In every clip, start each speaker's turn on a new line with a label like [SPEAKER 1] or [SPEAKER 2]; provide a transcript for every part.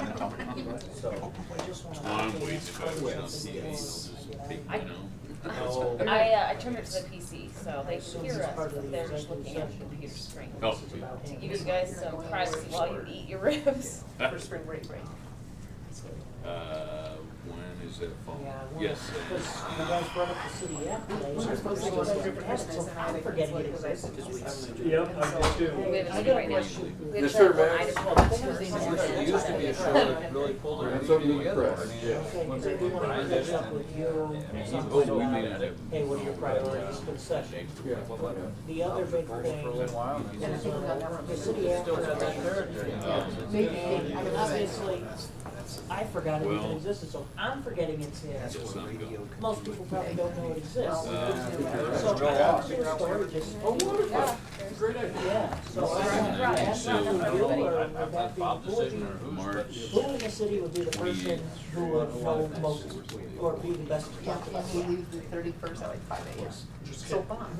[SPEAKER 1] So,
[SPEAKER 2] I'm way too bad with those CDs.
[SPEAKER 3] I-
[SPEAKER 2] You know?
[SPEAKER 1] no.
[SPEAKER 3] I, uh, I turned it to the PC, so they
[SPEAKER 1] So
[SPEAKER 3] can
[SPEAKER 1] this
[SPEAKER 3] hear
[SPEAKER 1] is
[SPEAKER 3] us,
[SPEAKER 1] part of
[SPEAKER 3] but
[SPEAKER 1] the
[SPEAKER 3] they're just
[SPEAKER 1] executive
[SPEAKER 3] looking at the
[SPEAKER 1] session.
[SPEAKER 3] computer screen.
[SPEAKER 2] Oh.
[SPEAKER 1] This is about
[SPEAKER 3] To
[SPEAKER 1] him.
[SPEAKER 3] give you guys some privacy while you eat your ribs.
[SPEAKER 2] Uh,
[SPEAKER 4] spring break, right?
[SPEAKER 2] Uh, when is that phone?
[SPEAKER 1] Yeah, well,
[SPEAKER 2] Yes. it
[SPEAKER 1] Because
[SPEAKER 2] is. Uh,
[SPEAKER 1] you guys brought up the city app today. so
[SPEAKER 4] We're
[SPEAKER 1] I'm
[SPEAKER 4] supposed to
[SPEAKER 1] like,
[SPEAKER 4] go to
[SPEAKER 1] well, I
[SPEAKER 4] different
[SPEAKER 1] forgot, so
[SPEAKER 4] business and I
[SPEAKER 1] I'm
[SPEAKER 4] think
[SPEAKER 1] forgetting
[SPEAKER 4] it's
[SPEAKER 1] it.
[SPEAKER 4] like- Because we have an
[SPEAKER 5] Yep, I do too.
[SPEAKER 3] We
[SPEAKER 1] I got
[SPEAKER 3] have a
[SPEAKER 1] a
[SPEAKER 3] right now.
[SPEAKER 1] question.
[SPEAKER 3] We have
[SPEAKER 6] Mr.
[SPEAKER 3] to-
[SPEAKER 6] Mayor?
[SPEAKER 3] item twelve is first.
[SPEAKER 7] There used to be a show that really pulled their
[SPEAKER 6] That's something
[SPEAKER 7] interview
[SPEAKER 6] to
[SPEAKER 7] together.
[SPEAKER 6] press,
[SPEAKER 7] I mean,
[SPEAKER 6] yeah.
[SPEAKER 1] Okay,
[SPEAKER 7] once
[SPEAKER 1] because I
[SPEAKER 7] they
[SPEAKER 1] do want
[SPEAKER 7] combined
[SPEAKER 1] to
[SPEAKER 7] it
[SPEAKER 1] catch up
[SPEAKER 7] and-
[SPEAKER 1] with you.
[SPEAKER 7] I mean,
[SPEAKER 1] something
[SPEAKER 7] oh, we
[SPEAKER 1] about,
[SPEAKER 7] may not have-
[SPEAKER 1] Hey, what are your priorities for the session?
[SPEAKER 6] Yeah.
[SPEAKER 1] The other big
[SPEAKER 7] For a
[SPEAKER 1] thing
[SPEAKER 7] little
[SPEAKER 1] is,
[SPEAKER 7] while, and then-
[SPEAKER 1] uh, the city app.
[SPEAKER 4] Still got that third.
[SPEAKER 1] And and obviously, I forgot it even
[SPEAKER 2] Well-
[SPEAKER 1] existed, so I'm forgetting it's here.
[SPEAKER 2] Yes, I'm going.
[SPEAKER 1] Most people probably don't know it exists.
[SPEAKER 2] Uh,
[SPEAKER 1] So I have to do a story just, oh, wonderful,
[SPEAKER 6] Great idea.
[SPEAKER 1] yeah. So I want to ask
[SPEAKER 2] So,
[SPEAKER 1] not
[SPEAKER 2] I
[SPEAKER 1] you,
[SPEAKER 2] don't
[SPEAKER 1] or
[SPEAKER 2] know,
[SPEAKER 1] would that be,
[SPEAKER 7] Bob
[SPEAKER 1] who would
[SPEAKER 7] decision or
[SPEAKER 1] you,
[SPEAKER 7] who's,
[SPEAKER 2] Oh,
[SPEAKER 1] who
[SPEAKER 7] but
[SPEAKER 1] in the city would be the person who would know most or be the best to
[SPEAKER 8] Yeah,
[SPEAKER 1] talk about?
[SPEAKER 8] and we leave the thirty-first at like five AM. So bomb.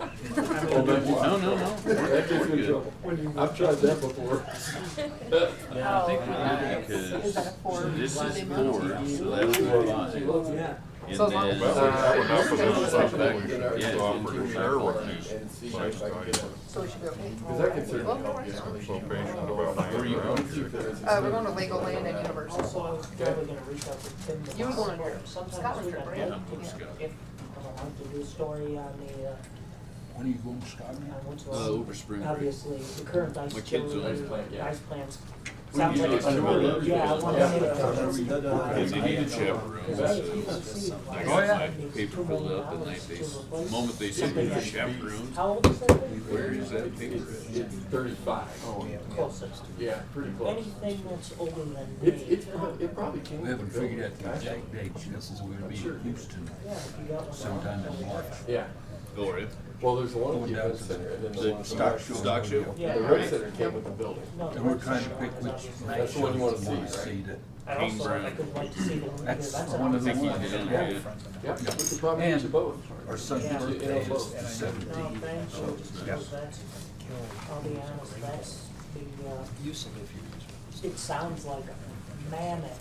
[SPEAKER 6] Oh, but you-
[SPEAKER 2] No, no, no.
[SPEAKER 6] That gets me in trouble. I've tried that before.
[SPEAKER 2] I think we
[SPEAKER 8] nice.
[SPEAKER 2] did
[SPEAKER 8] Is that a four?
[SPEAKER 2] because this is
[SPEAKER 8] Sunday
[SPEAKER 2] four,
[SPEAKER 8] morning?
[SPEAKER 2] so that's five. And
[SPEAKER 8] So as long as
[SPEAKER 2] then-
[SPEAKER 6] Uh,
[SPEAKER 2] uh,
[SPEAKER 8] it's-
[SPEAKER 2] Yeah,
[SPEAKER 9] So I'm pretty sure what you
[SPEAKER 6] And see if I
[SPEAKER 9] like,
[SPEAKER 6] can
[SPEAKER 9] like,
[SPEAKER 6] get one.
[SPEAKER 8] So we should go. hey,
[SPEAKER 6] Because that can
[SPEAKER 8] well,
[SPEAKER 6] certainly
[SPEAKER 8] well,
[SPEAKER 6] help you.
[SPEAKER 8] we're-
[SPEAKER 9] probation about nine
[SPEAKER 2] Where you
[SPEAKER 9] around
[SPEAKER 2] going?
[SPEAKER 9] here.
[SPEAKER 8] Uh, we're going to Legoland and
[SPEAKER 1] Also,
[SPEAKER 8] Universal.
[SPEAKER 1] I was probably gonna reach out to Tim.
[SPEAKER 8] You were going
[SPEAKER 1] tomorrow.
[SPEAKER 8] to
[SPEAKER 1] Sometimes
[SPEAKER 8] Scotland
[SPEAKER 1] we
[SPEAKER 8] trip,
[SPEAKER 1] got
[SPEAKER 8] right?
[SPEAKER 2] Yeah,
[SPEAKER 1] late.
[SPEAKER 2] I'm going to Scotland.
[SPEAKER 1] If, I don't have to do a story on the, uh,
[SPEAKER 6] When are you going to Scotland?
[SPEAKER 1] I went to.
[SPEAKER 2] Uh, over spring break.
[SPEAKER 1] Obviously, the current ice.
[SPEAKER 2] My kids
[SPEAKER 1] still-
[SPEAKER 2] always
[SPEAKER 7] play, yeah.
[SPEAKER 1] Ice plans.
[SPEAKER 2] We
[SPEAKER 1] Sounds
[SPEAKER 2] used
[SPEAKER 1] like it's
[SPEAKER 2] to do
[SPEAKER 1] really,
[SPEAKER 2] those.
[SPEAKER 1] yeah, I wanna see
[SPEAKER 5] Yeah.
[SPEAKER 1] it.
[SPEAKER 2] Because they need a chaperone,
[SPEAKER 1] Cause hey, if you
[SPEAKER 2] so
[SPEAKER 1] don't see. it,
[SPEAKER 2] I
[SPEAKER 1] like,
[SPEAKER 2] got my
[SPEAKER 1] it's
[SPEAKER 2] paper
[SPEAKER 1] two
[SPEAKER 2] filled
[SPEAKER 1] million
[SPEAKER 2] out the night
[SPEAKER 1] dollars
[SPEAKER 2] they,
[SPEAKER 1] to
[SPEAKER 2] s-
[SPEAKER 1] replace
[SPEAKER 2] the moment they said
[SPEAKER 1] something
[SPEAKER 2] you were
[SPEAKER 1] that-
[SPEAKER 2] chaperones,
[SPEAKER 1] How old is that thing?
[SPEAKER 2] where is that paper?
[SPEAKER 6] It's thirty-five.
[SPEAKER 1] Closest.
[SPEAKER 6] Yeah, pretty close.
[SPEAKER 1] Anything that's older than me.
[SPEAKER 6] It's, it's, prob- it probably came.
[SPEAKER 7] we haven't
[SPEAKER 6] from
[SPEAKER 7] figured out the
[SPEAKER 6] Gilbert.
[SPEAKER 7] exact date, this is gonna be in Houston
[SPEAKER 1] Yeah, if you got one.
[SPEAKER 7] sometime in March.
[SPEAKER 6] Yeah,
[SPEAKER 2] Go ahead.
[SPEAKER 6] well, there's one at
[SPEAKER 7] Going
[SPEAKER 6] the
[SPEAKER 7] down
[SPEAKER 6] event
[SPEAKER 7] to
[SPEAKER 6] center and then the
[SPEAKER 2] the
[SPEAKER 6] one.
[SPEAKER 2] stock- stock show?
[SPEAKER 1] Yeah.
[SPEAKER 6] The rec center came with the building.
[SPEAKER 1] No,
[SPEAKER 7] And we're trying to pick
[SPEAKER 1] that's
[SPEAKER 7] which
[SPEAKER 1] obviously-
[SPEAKER 7] night
[SPEAKER 6] That's the one you
[SPEAKER 7] shows we
[SPEAKER 6] wanna
[SPEAKER 7] wanna
[SPEAKER 6] see,
[SPEAKER 7] see that,
[SPEAKER 1] I
[SPEAKER 2] Dean
[SPEAKER 1] also, I
[SPEAKER 2] Brown.
[SPEAKER 1] could like to see the one,
[SPEAKER 7] that's
[SPEAKER 1] because that's
[SPEAKER 7] one of the
[SPEAKER 1] an-
[SPEAKER 7] ones.
[SPEAKER 2] done
[SPEAKER 7] yeah.
[SPEAKER 2] it.
[SPEAKER 6] Yeah, we could probably get you
[SPEAKER 7] And-
[SPEAKER 6] both.
[SPEAKER 7] Our son's
[SPEAKER 1] Yeah.
[SPEAKER 7] birthday is the
[SPEAKER 1] No,
[SPEAKER 7] seventeenth,
[SPEAKER 1] Oh, thank
[SPEAKER 7] so
[SPEAKER 1] you. That's- I'll be honest, that's the, uh, it sounds like manic.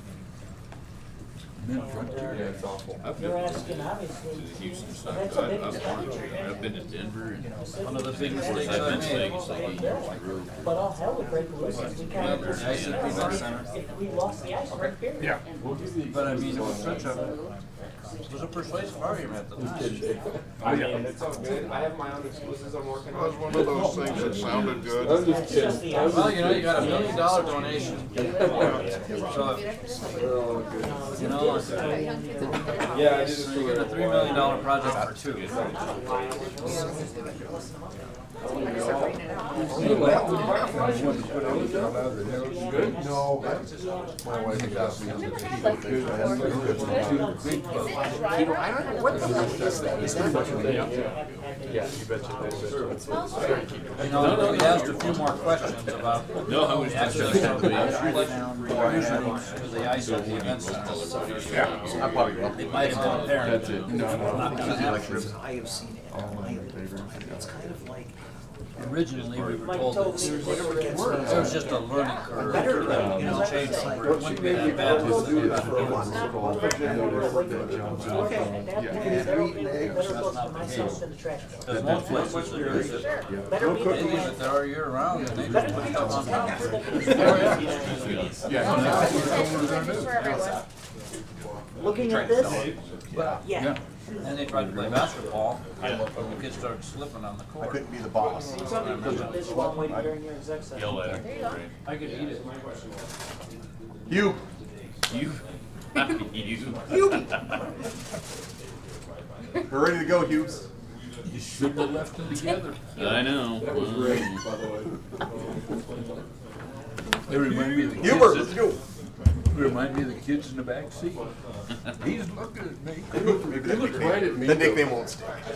[SPEAKER 7] men right
[SPEAKER 6] Yeah,
[SPEAKER 7] there.
[SPEAKER 6] it's awful.
[SPEAKER 2] I've
[SPEAKER 1] You're
[SPEAKER 2] been
[SPEAKER 1] asking,
[SPEAKER 2] to the
[SPEAKER 1] obviously.
[SPEAKER 2] Houston stock,
[SPEAKER 1] That's
[SPEAKER 2] I've,
[SPEAKER 1] a big
[SPEAKER 2] I've
[SPEAKER 1] challenge.
[SPEAKER 2] gone to- I've been to Denver and
[SPEAKER 1] The city.
[SPEAKER 7] One of the
[SPEAKER 2] Of
[SPEAKER 7] things
[SPEAKER 2] course,
[SPEAKER 7] that
[SPEAKER 2] I've been
[SPEAKER 7] I
[SPEAKER 2] to
[SPEAKER 7] made.
[SPEAKER 2] Vegas, I eat real-
[SPEAKER 1] But all hell would break loose if we kind of just,
[SPEAKER 7] Nice,
[SPEAKER 1] if
[SPEAKER 7] nice center.
[SPEAKER 1] we lost the ice right here.
[SPEAKER 7] Yeah.
[SPEAKER 6] We'll give you.
[SPEAKER 7] But I mean, it was such a, it was a persuasive argument at the time.
[SPEAKER 5] I mean, it's all good. I have my own excuses I'm working
[SPEAKER 9] That was
[SPEAKER 5] on.
[SPEAKER 9] one of those things that sounded good.
[SPEAKER 6] I'm just
[SPEAKER 1] That's just
[SPEAKER 6] kidding.
[SPEAKER 1] the
[SPEAKER 6] I was
[SPEAKER 1] ice.
[SPEAKER 7] Well, you know, you got a million dollar donation, so, you know, it's-
[SPEAKER 5] Yeah, I did this
[SPEAKER 7] so
[SPEAKER 5] for
[SPEAKER 7] you got a
[SPEAKER 5] little
[SPEAKER 7] three
[SPEAKER 5] while.
[SPEAKER 7] million dollar project for two.
[SPEAKER 6] No,
[SPEAKER 1] My wife
[SPEAKER 6] got
[SPEAKER 1] me.
[SPEAKER 3] There's no big problem. Is it a driver?
[SPEAKER 8] I don't know, what the fuck is that? Is that?
[SPEAKER 6] Yeah, you betcha they said.
[SPEAKER 7] You know, we asked a few more questions about.
[SPEAKER 2] No, I was just.
[SPEAKER 7] Access to the usually to the ice
[SPEAKER 2] So
[SPEAKER 7] at the
[SPEAKER 2] when you
[SPEAKER 7] event
[SPEAKER 2] roll
[SPEAKER 7] center.
[SPEAKER 2] colors,
[SPEAKER 7] So
[SPEAKER 2] it's-
[SPEAKER 7] I probably- It might have been there.
[SPEAKER 6] That's it.
[SPEAKER 7] Not because that was-
[SPEAKER 4] I have seen it. I have lived on it. It's kind of like,
[SPEAKER 7] Originally, we were
[SPEAKER 1] Mike
[SPEAKER 7] told
[SPEAKER 1] told
[SPEAKER 7] that
[SPEAKER 1] me
[SPEAKER 7] there
[SPEAKER 1] this
[SPEAKER 7] was
[SPEAKER 1] would work.
[SPEAKER 7] just a learning curve.
[SPEAKER 4] better
[SPEAKER 7] You know,
[SPEAKER 1] than-
[SPEAKER 7] change
[SPEAKER 1] Like,
[SPEAKER 7] over. It wouldn't be that bad.
[SPEAKER 6] Let's do this for a
[SPEAKER 7] It
[SPEAKER 6] once.
[SPEAKER 7] was.
[SPEAKER 1] Okay, at that point, better be, better go to myself than the trash can.
[SPEAKER 7] There's one place which there is, that
[SPEAKER 1] Better be.
[SPEAKER 7] they leave it there year round and they just put stuff on top.
[SPEAKER 1] Looking at this, yeah.
[SPEAKER 7] And they tried to play basketball, but the kids started slipping on the court.
[SPEAKER 6] be the boss.
[SPEAKER 1] This is one way to during your exec session.
[SPEAKER 2] Yell at
[SPEAKER 3] There
[SPEAKER 2] him.
[SPEAKER 3] you go.
[SPEAKER 2] right?
[SPEAKER 7] I could eat it.
[SPEAKER 6] You.
[SPEAKER 2] You. You.
[SPEAKER 6] We're ready to go, Hughes.
[SPEAKER 7] You should have left them together.
[SPEAKER 2] I know.
[SPEAKER 6] That was great, by the way.
[SPEAKER 7] They remind me of the kids.
[SPEAKER 6] Hubert,
[SPEAKER 7] that-
[SPEAKER 6] let's go.
[SPEAKER 7] They Remind me of the kids in the back seat. He's looking at me.
[SPEAKER 6] You looked right at me.
[SPEAKER 9] The nickname won't stick.